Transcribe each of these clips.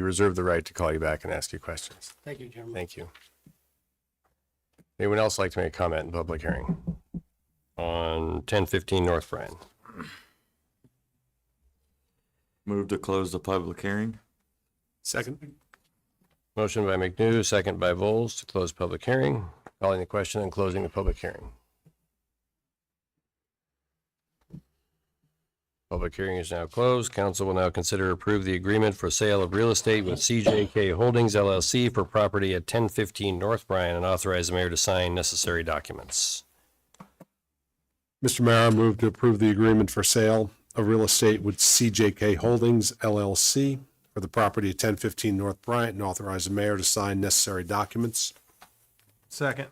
We reserve the right to call you back and ask you questions. Thank you, Chairman. Thank you. Anyone else like to make a comment in public hearing on ten fifteen North Bryan? Move to close the public hearing. Second. Motion by McNew, second by Vols to close public hearing, calling the question and closing the public hearing. Public hearing is now closed. Council will now consider approve the agreement for sale of real estate with CJK Holdings LLC for property at ten fifteen North Bryan and authorize the mayor to sign necessary documents. Mr. Mayor, I move to approve the agreement for sale of real estate with CJK Holdings LLC for the property at 1015 North Bryant and authorize the mayor to sign necessary documents. Second.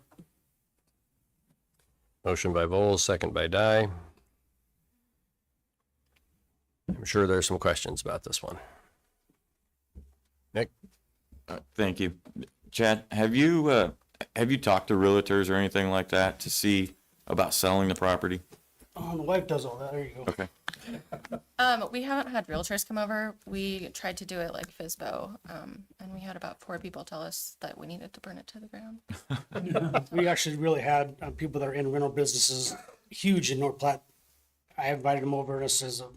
Motion by Vols, second by Dye. I'm sure there's some questions about this one. Nick, Uh, Thank you. Chad, have you, uh, have you talked to realtors or anything like that to see about selling the property? Oh, the wife does all that. There you go. Okay. Um, we haven't had realtors come over. We tried to do it like FISBO, um, and we had about four people tell us that we needed to burn it to the ground. We actually really had uh, people that are in rental businesses, huge in North Platte. I invited them over and I says, um,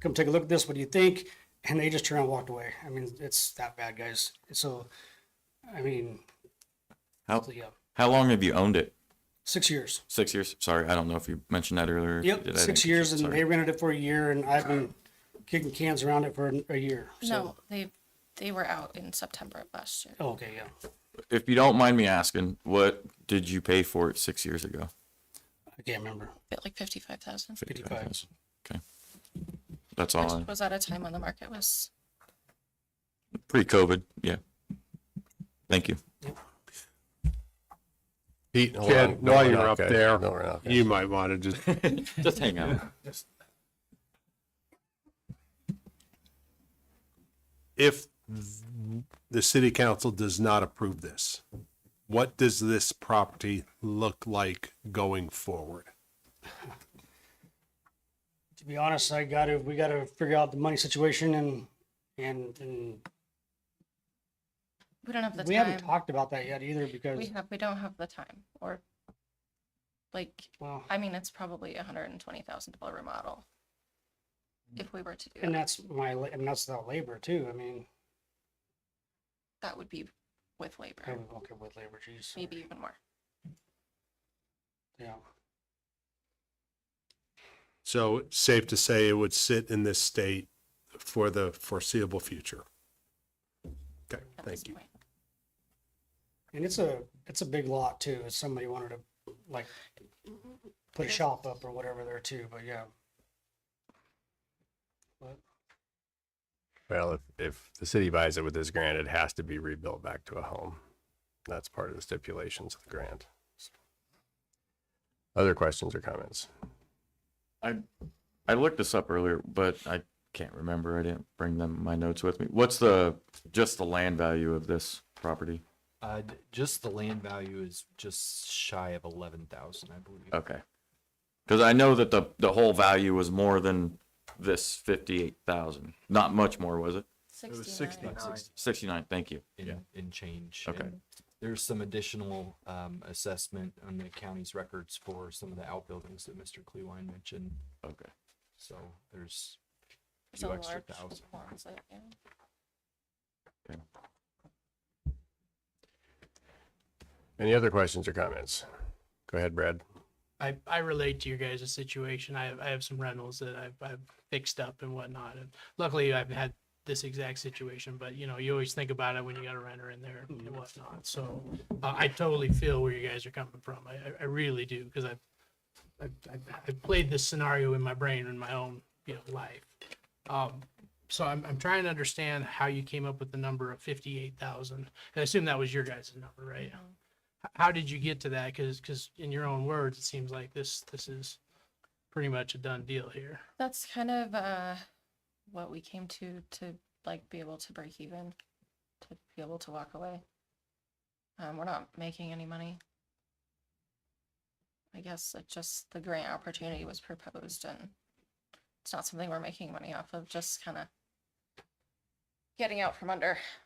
come take a look at this. What do you think? And they just turned around and walked away. I mean, it's that bad, guys. So, I mean, How, yeah, how long have you owned it? six years. Six years? Sorry, I don't know if you mentioned that earlier. If you did, Yep, I six didn't- years and sorry. they rented it for a year and I've been kicking cans around it for an- a year. So, No, they they were out in September of last year. Oh, okay, yeah. If you don't mind me asking, what did you pay for it six years ago? I can't remember. Bit like fifty five thousand, Fifty-five. Okay. That's all. which I- was at a time when the market was Pre-COVID, yeah. Thank you. Pete, hold Chad, on. No, while we're you're not up good. there, No, we're not good. You might want to just, Just hang out. if the city council does not approve this, what does this property look like going forward? to be honest, I gotta, we gotta figure out the money situation and, and, and we don't have the we time. haven't talked about that yet either we because, have we don't have the time or like well, I mean it's probably a hundred and twenty thousand dollar remodel if we were to do and it. that's my, la- and that's without labor too. I mean, That would be with labor, I would look at with labor, geez. maybe even more. Yeah. So it's safe to say it would sit in this state for the foreseeable future. Okay, At this thank you. point. And it's a, it's a big lot too. If somebody wanted to like Mm-hmm. put a shop up or whatever there too, but yeah. But Well, if, if the city buys it with this grant, it has to be rebuilt back to a home. That's part of the stipulations of the grant. Other questions or comments? I I looked this up earlier, but I can't remember. I didn't bring them my notes with me. What's the just the land value of this property? Uh, d- just the land value is just shy of eleven thousand, I believe. Okay. Cuz I know that the the whole value was more than this 58,000. Not much more, was it? It was 69. sixty-nine 69, thank you. in, in change. Okay. And There's some additional, um, assessment on the county's records for some of the outbuildings that Mr. Clewine mentioned, Okay. so there's a So few extra large thousand. ones, like, yeah. Any other questions or comments? Go ahead, Brad. I, I relate to your guys' situation. I have, I have some rentals that I've, I've fixed up and whatnot. And luckily, I've had this exact situation, but you know, you always think about it when you got a renter in there and whatnot. So uh, I totally feel where you guys are coming from. I, I- I really do because I've, I've, I've, I've played this scenario in my brain in my own you know life. Um, so I'm, I'm trying to understand how you came up with the number of 58,000. I assume that was your guys' number, right? Mm-hmm. how did you get to that? Because in your own words, it seems like this this is pretty much a done deal here. That's kind of uh what we came to to like be able to break even, to be able to walk away. Um, we're not making any money. I guess it just the grant opportunity was proposed and it's not something we're making money off of, just kind of getting out from under.